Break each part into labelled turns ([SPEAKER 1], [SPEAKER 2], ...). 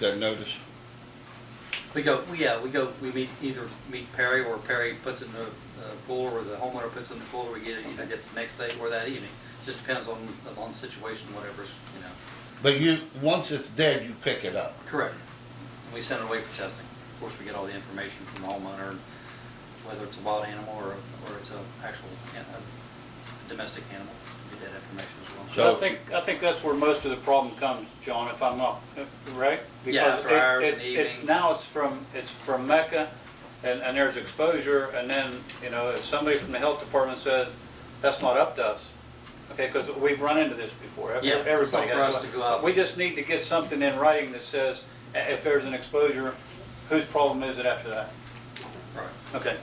[SPEAKER 1] that notice.
[SPEAKER 2] We go, we- yeah, we go, we meet, either meet Perry or Perry puts it in the uh, cooler or the homeowner puts it in the cooler. We get it either get it the next day or that evening. Just depends on, on the situation, whatever's, you know.
[SPEAKER 1] But you, once it's dead, you pick it up.
[SPEAKER 2] Correct. We send it away for testing. Of course, we get all the information from the homeowner, whether it's a wild animal or, or it's a actual, an- a domestic animal. We Get that information as well.
[SPEAKER 1] So-
[SPEAKER 3] I think, I think that's where most of the problem comes, John, if I'm not, right?
[SPEAKER 2] Yeah, after
[SPEAKER 3] Because it-
[SPEAKER 2] hours and
[SPEAKER 3] it's- It's,
[SPEAKER 2] evening.
[SPEAKER 3] now it's from, it's from Mecca, and, and there's exposure, and then, you know, if somebody from the health department says, that's not up to us, okay, because we've run into this before. Every-
[SPEAKER 2] Yeah, it's
[SPEAKER 3] Everybody
[SPEAKER 2] not
[SPEAKER 3] has
[SPEAKER 2] for us
[SPEAKER 3] one.
[SPEAKER 2] to go out.
[SPEAKER 3] We just need to get something in writing that says, i- if there's an exposure, whose problem is it after that?
[SPEAKER 2] Right.
[SPEAKER 3] Okay,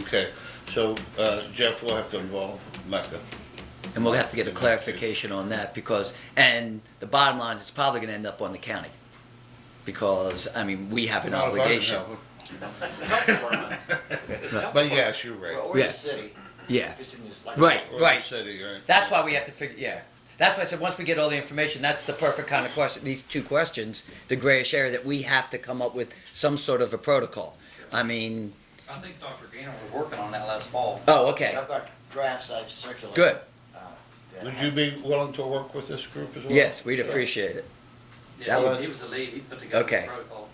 [SPEAKER 1] Okay, so uh, Jeff will have to involve Mecca.
[SPEAKER 4] And we'll have to get a clarification on that because, and the bottom line is it's probably going to end up on the county. Because, I mean, we have an
[SPEAKER 1] Not if I can
[SPEAKER 4] obligation.
[SPEAKER 1] help it.
[SPEAKER 5] It's not
[SPEAKER 1] But
[SPEAKER 5] for-
[SPEAKER 1] yes, you're right.
[SPEAKER 5] Or
[SPEAKER 4] Yeah.
[SPEAKER 5] the city,
[SPEAKER 4] Yeah,
[SPEAKER 5] if it's in this. like-
[SPEAKER 4] Right.
[SPEAKER 1] Or the city, right?
[SPEAKER 4] that's why we have to figure, yeah. That's why I said, once we get all the information, that's the perfect kind of question, these two questions, the grayish area, that we have to come up with some sort of a protocol. I mean,
[SPEAKER 2] I think Dr. Gainer was working on that last fall.
[SPEAKER 4] oh, okay,
[SPEAKER 5] I've got drafts I've circulated.
[SPEAKER 4] good.
[SPEAKER 5] uh, that
[SPEAKER 1] Would you be willing to work with this group as well?
[SPEAKER 4] Yes, we'd appreciate it.
[SPEAKER 2] Yeah,
[SPEAKER 4] That
[SPEAKER 1] would-
[SPEAKER 2] he was the lead. He put together the
[SPEAKER 4] Okay.
[SPEAKER 2] protocol.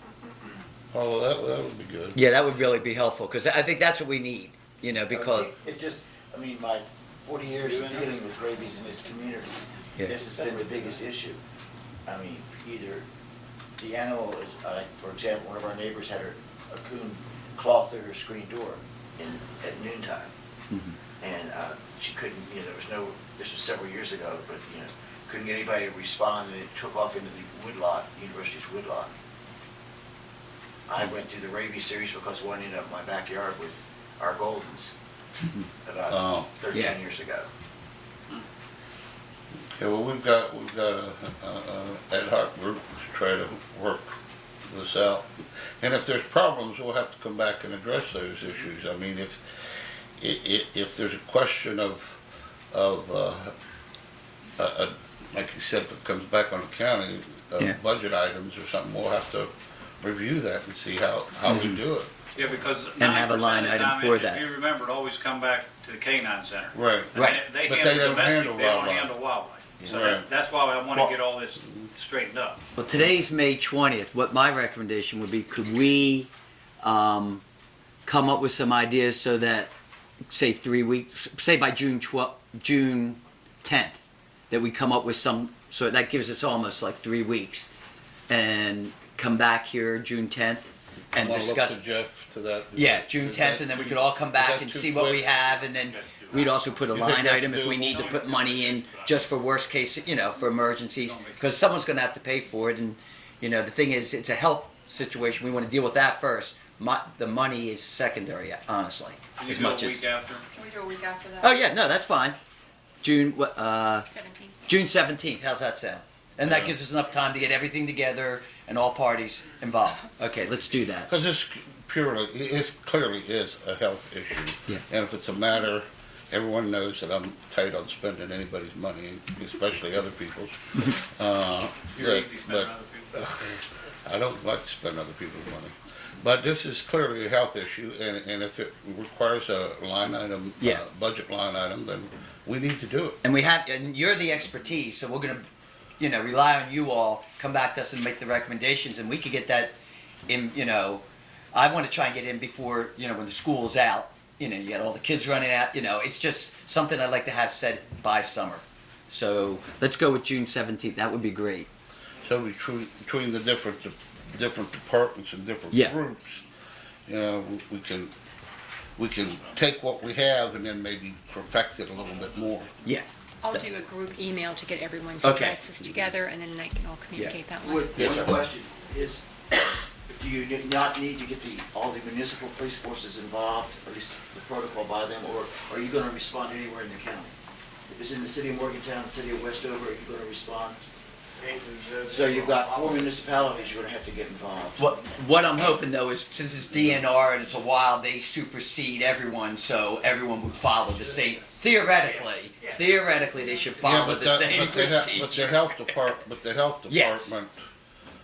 [SPEAKER 1] Oh, well, that, that would be good.
[SPEAKER 4] Yeah, that would really be helpful because I think that's what we need, you know,
[SPEAKER 5] Okay,
[SPEAKER 4] because,
[SPEAKER 5] It just, I mean, my forty years of dealing with rabies in this community,
[SPEAKER 4] Yeah.
[SPEAKER 5] this has been the biggest issue. I mean, either the animal is, uh, for example, one of our neighbors had her, a coon claw through her screen door in, at noontime.
[SPEAKER 4] Mm-hmm.
[SPEAKER 5] And, uh, she couldn't, you know, there was no, this was several years ago, but, you know, couldn't get anybody to respond, and it took off into the woodlot, university's woodlot. I went through the rabies series because one ended up in my backyard with our Goldens
[SPEAKER 1] Oh.
[SPEAKER 5] about
[SPEAKER 4] Yeah.
[SPEAKER 5] thirteen years ago.
[SPEAKER 1] Okay, well, we've got, we've got a, a, a ad hoc group to try to work this out. And if there's problems, we'll have to come back and address those issues. I mean, if, i- i- if there's a question of, of, uh, uh, uh, like you said, if it comes back on the county, uh,
[SPEAKER 4] Yeah.
[SPEAKER 1] budget items or something, we'll have to review that and see how, how
[SPEAKER 4] Mm-hmm.
[SPEAKER 1] we do it.
[SPEAKER 3] yeah, because
[SPEAKER 4] And have a line
[SPEAKER 3] 90% of the
[SPEAKER 4] item
[SPEAKER 3] time,
[SPEAKER 4] for
[SPEAKER 3] if-
[SPEAKER 4] that.
[SPEAKER 3] If you remember, it always come back to the canine center.
[SPEAKER 1] Right.
[SPEAKER 4] Right.
[SPEAKER 3] They
[SPEAKER 1] But they
[SPEAKER 3] handle
[SPEAKER 1] don't
[SPEAKER 3] domestic,
[SPEAKER 1] handle
[SPEAKER 3] they don't
[SPEAKER 1] wildlife.
[SPEAKER 3] handle wildlife. So
[SPEAKER 1] Right.
[SPEAKER 3] that's- that's why I want
[SPEAKER 4] Well-
[SPEAKER 3] to get all this straightened up.
[SPEAKER 4] well, today's May 20th. What my recommendation would be, could we um, come up with some ideas so that, say, three weeks, say by June 12th, June 10th, that we come up with some, so that gives us almost like three weeks and come back here June 10th and
[SPEAKER 1] I'll look
[SPEAKER 4] discuss.
[SPEAKER 1] to Jeff to that. Is
[SPEAKER 4] Yeah,
[SPEAKER 1] that-
[SPEAKER 4] June
[SPEAKER 1] is
[SPEAKER 4] tenth,
[SPEAKER 1] that
[SPEAKER 4] and then we
[SPEAKER 1] too-
[SPEAKER 4] could all come
[SPEAKER 1] is
[SPEAKER 4] back
[SPEAKER 1] that
[SPEAKER 4] and
[SPEAKER 1] too
[SPEAKER 4] see what we
[SPEAKER 1] quick?
[SPEAKER 4] have, and then we'd also put a
[SPEAKER 1] You think
[SPEAKER 4] line
[SPEAKER 1] that's
[SPEAKER 4] item if we
[SPEAKER 1] doable?
[SPEAKER 4] need to put money in just for worst case, you know, for emergencies, because someone's gonna have to pay for it, and, you know, the thing is, it's a health situation, we wanna deal with that first. Mo the money is secondary, honestly,
[SPEAKER 3] Can you
[SPEAKER 4] as
[SPEAKER 3] do a
[SPEAKER 4] much
[SPEAKER 3] week
[SPEAKER 4] as,
[SPEAKER 3] after?
[SPEAKER 6] Can we do a week after that?
[SPEAKER 4] oh, yeah, no, that's fine. June, wha- uh,
[SPEAKER 6] Seventeenth.
[SPEAKER 4] June seventeenth, how's that sound? And
[SPEAKER 1] Yeah.
[SPEAKER 4] that gives us enough time to get everything together and all parties involved. Okay, let's do that.
[SPEAKER 1] Because it's purely, it clearly is a health issue.
[SPEAKER 4] Yeah.
[SPEAKER 1] And if it's a matter, everyone knows that I'm tight on spending anybody's money, especially other people's. Uh,
[SPEAKER 3] You're
[SPEAKER 1] that-
[SPEAKER 3] easy spending
[SPEAKER 1] But
[SPEAKER 3] other people.
[SPEAKER 1] I don't like to spend other people's money. But this is clearly a health issue, and, and if it requires a line item,
[SPEAKER 4] Yeah.
[SPEAKER 1] uh, budget line item, then we need to do it.
[SPEAKER 4] and we have and you're the expertise so we're going to you know rely on you all come back to us and make the recommendations and we could get that in you know i want to try and get in before you know when the school's out you know you got all the kids running out you know it's just something i'd like to have said by summer so let's go with june 17th that would be great
[SPEAKER 1] So between, between the different, de- different departments and different
[SPEAKER 4] Yeah.
[SPEAKER 1] groups, you know, we- we can, we can take what we have and then maybe perfect it a little bit more.
[SPEAKER 4] yeah
[SPEAKER 6] I'll do a group email to get everyone's
[SPEAKER 4] Okay.
[SPEAKER 6] addresses together, and then I can all communicate that one.
[SPEAKER 5] One
[SPEAKER 1] Yes, sir.
[SPEAKER 5] question is, do you ne- not need to get the, all the municipal police forces involved, at least the protocol by them, or are you gonna respond anywhere in the county? If it's in the city of Morgantown, city of Westover, are you gonna respond? So you've got four municipalities you're gonna have to get involved.
[SPEAKER 4] What what I'm hoping though is since it's DNR and it's a wild, they supersede everyone, so everyone would follow the same. Theoretically, theoretically, they should
[SPEAKER 1] Yeah,
[SPEAKER 4] follow
[SPEAKER 1] but
[SPEAKER 4] the
[SPEAKER 1] that-
[SPEAKER 4] same
[SPEAKER 1] but the he- But the
[SPEAKER 4] procedure.
[SPEAKER 1] health depart, but the health
[SPEAKER 4] Yes.
[SPEAKER 1] department